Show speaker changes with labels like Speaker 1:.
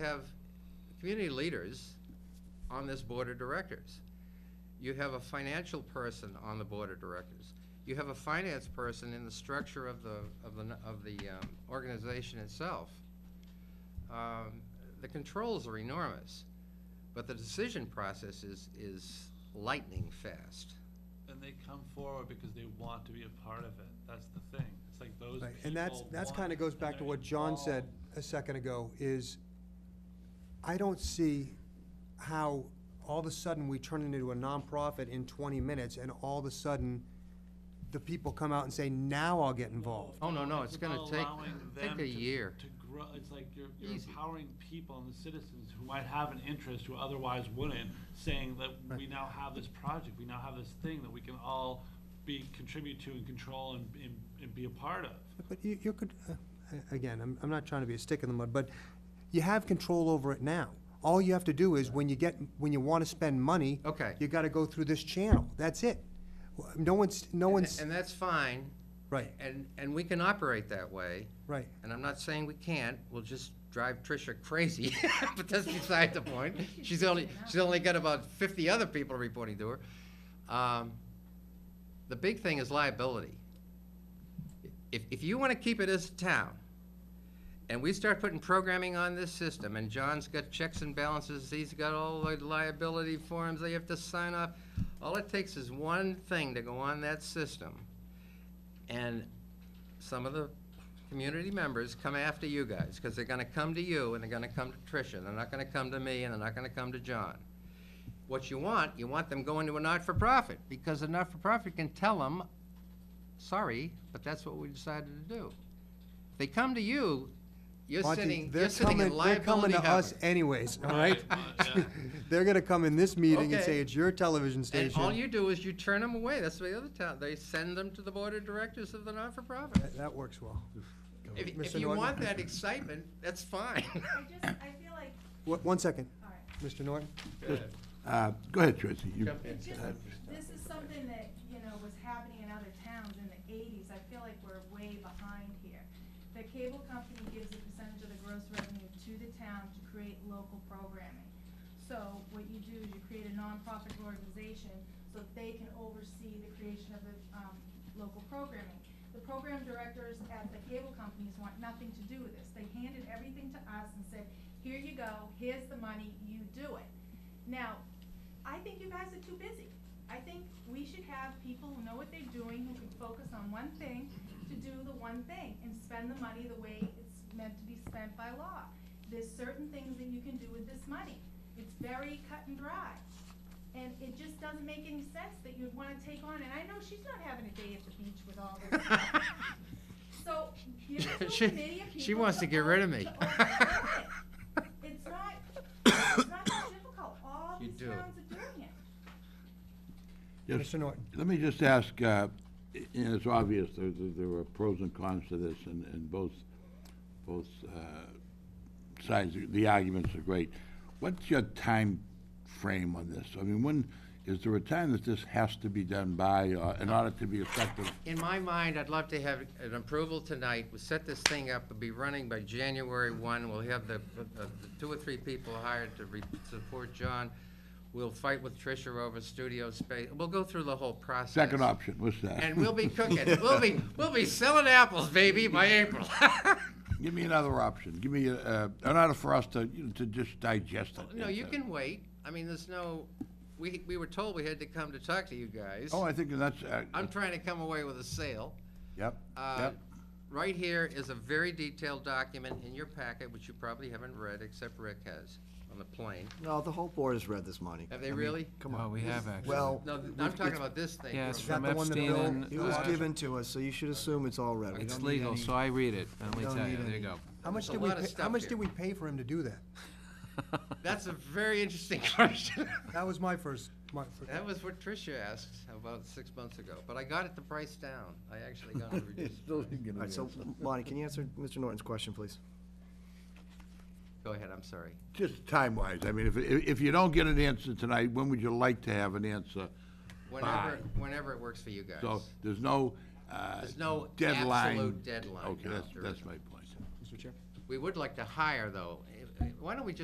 Speaker 1: have community leaders on this board of directors. You have a financial person on the board of directors. You have a finance person in the structure of the, of the, of the um, organization itself. Um, The controls are enormous, but the decision process is, is lightning fast.
Speaker 2: And they come forward because they want to be a part of it. That's the thing. It's like those people.
Speaker 3: Right, And that's, that's
Speaker 2: want
Speaker 3: kind
Speaker 2: it,
Speaker 3: of goes
Speaker 2: and
Speaker 3: back to
Speaker 2: they're
Speaker 3: what John said
Speaker 2: involved.
Speaker 3: a second ago, is I don't see how all of a sudden we turn it into a nonprofit in twenty minutes, and all of a sudden, the people come out and say, now I'll get involved.
Speaker 1: Oh, no, no, it's
Speaker 2: about
Speaker 1: gonna take-
Speaker 2: allowing
Speaker 1: take
Speaker 2: them
Speaker 1: a
Speaker 2: to-
Speaker 1: year.
Speaker 2: To grow, it's like you're, you're
Speaker 1: Easy.
Speaker 2: empowering people and the citizens who might have an interest who otherwise wouldn't, saying that we now have this project, we now have this thing that we can all be, contribute to and control and, and, and be a part of.
Speaker 3: But you, you could, uh, a- again, I'm, I'm not trying to be a stick in the mud, but you have control over it now. All you have to do is, when you get, when you wanna spend money.
Speaker 1: Okay.
Speaker 3: You gotta go through this channel, that's it. W- No one's, no one's,
Speaker 1: And that's fine,
Speaker 3: right,
Speaker 1: and, and we can operate that way.
Speaker 3: right.
Speaker 1: And I'm not saying we can't, we'll just drive Tricia crazy, but that's beside the point. She's only, she's only got about fifty other people reporting to her. Um, The big thing is liability. If, if you wanna keep it as a town, and we start putting programming on this system, and John's got checks and balances, he's got all the liability forms they have to sign off, all it takes is one thing to go on that system, and some of the community members come after you guys, because they're gonna come to you, and they're gonna come to Tricia, they're not gonna come to me, and they're not gonna come to John. What you want, you want them going to a not-for-profit, because a not-for-profit can tell them, sorry, but that's what we decided to do. If They come to you, you're
Speaker 3: Monty,
Speaker 1: sitting,
Speaker 3: they're
Speaker 1: you're sitting in
Speaker 3: coming- they're coming
Speaker 1: liability
Speaker 3: to us
Speaker 1: heaven.
Speaker 3: anyways, all right?
Speaker 2: Right, uh, yeah.
Speaker 3: They're gonna come in this meeting and
Speaker 1: Okay.
Speaker 3: say, it's your television
Speaker 1: And all
Speaker 3: station.
Speaker 1: you do is you turn them away, that's the other town, they send them to the board of directors of the not-for-profit.
Speaker 3: That- That works well.
Speaker 1: If, if
Speaker 3: Mr.
Speaker 1: you
Speaker 3: Norton?
Speaker 1: want that excitement, that's fine.
Speaker 4: I just, I feel like,
Speaker 3: Wha- One second,
Speaker 4: all right,
Speaker 3: Mr. Norton?
Speaker 5: Uh, Go ahead, Tracy. You-
Speaker 1: Jump in.
Speaker 4: it's just, this is something that, you know, was happening in other towns in the eighties, I feel like we're way behind here. The cable company gives a percentage of the gross revenue to the town to create local programming. So what you do is you create a nonprofit organization, so that they can oversee the creation of the, um, local programming. The program directors at the cable companies want nothing to do with this, they handed everything to us and said, here you go, here's the money, you do it. Now, I think you guys are too busy. I think we should have people who know what they're doing, who can focus on one thing, to do the one thing, and spend the money the way it's meant to be spent by law. There's certain things that you can do with this money. It's very cut and dry. And it just doesn't make any sense that you'd wanna take on, and I know she's not having a day at the beach with all this stuff. So, give it to a
Speaker 1: She-
Speaker 4: committee of people.
Speaker 1: She wants to get rid of me.
Speaker 4: to oversee it. It's not, it's not that difficult, all
Speaker 1: You
Speaker 4: these
Speaker 1: do it.
Speaker 4: towns are doing it.
Speaker 5: Just-
Speaker 3: Mr. Norton.
Speaker 5: Let me just ask, uh, and it's obvious, there, there there are pros and cons to this, and, and both, both uh, sides, the arguments are great. What's your time frame on this? I mean, when, is there a time that this has to be done by, uh, in order to be effective?
Speaker 1: In my mind, I'd love to have an approval tonight, we set this thing up, it'll be running by January one, we'll have the, the the two or three people hired to re- support John. We'll fight with Tricia over studio space, we'll go through the whole process.
Speaker 5: Second option, what's that?
Speaker 1: And we'll be cooking, we'll be, we'll be selling apples, baby, by April.
Speaker 5: Give me another option, give me, uh, in order for us to, you know, to just digest it.
Speaker 1: No, you
Speaker 5: Uh,
Speaker 1: can wait, I mean, there's no, we, we were told we had to come to talk to you guys.
Speaker 5: Oh, I think that's, uh,
Speaker 1: I'm trying to come away with a sale.
Speaker 5: yep,
Speaker 1: Uh,
Speaker 5: yep.
Speaker 1: Right here is a very detailed document in your packet, which you probably haven't read, except Rick has, on the plane.
Speaker 6: No, the whole board has read this money.
Speaker 1: Have they really?
Speaker 6: Come
Speaker 7: Well,
Speaker 6: on.
Speaker 7: we have actually.
Speaker 6: Well,
Speaker 1: No, th- I'm talking about this thing.
Speaker 7: Yeah, it's
Speaker 1: from-
Speaker 3: that the
Speaker 7: from
Speaker 3: one that
Speaker 7: Epstein
Speaker 3: Bill-
Speaker 7: and.
Speaker 6: it was
Speaker 7: uh,
Speaker 6: given to us, so you should assume it's all read. We
Speaker 7: It's
Speaker 6: don't need
Speaker 7: legal,
Speaker 6: any-
Speaker 7: so I read it, let me
Speaker 6: don't
Speaker 7: tell you,
Speaker 6: need
Speaker 7: there you
Speaker 6: any-
Speaker 7: go.
Speaker 3: How much
Speaker 1: There's a
Speaker 3: did we,
Speaker 1: lot of
Speaker 3: pay- how
Speaker 1: stuff
Speaker 3: much
Speaker 1: here.
Speaker 3: did we pay for him to do that?
Speaker 1: That's a very interesting question.
Speaker 3: That was my first, my, fir-
Speaker 1: That was what Tricia asked about six months ago, but I got it the price down. I actually got it reduced.
Speaker 6: All right, so Lonnie, can you answer Mr. Norton's question, please?
Speaker 1: Go ahead, I'm sorry.
Speaker 5: Just time-wise, I mean, if, if if you don't get an answer tonight, when would you like to have an answer?
Speaker 1: Whenever, whenever it works for you guys.
Speaker 5: So there's no, uh,
Speaker 1: There's no
Speaker 5: deadline.
Speaker 1: absolute deadline,
Speaker 5: Okay,
Speaker 1: no,
Speaker 5: that's,
Speaker 1: there
Speaker 5: that's
Speaker 1: isn't.
Speaker 5: my point.
Speaker 6: Mr. Chair?
Speaker 1: We would like to hire, though. Why don't we just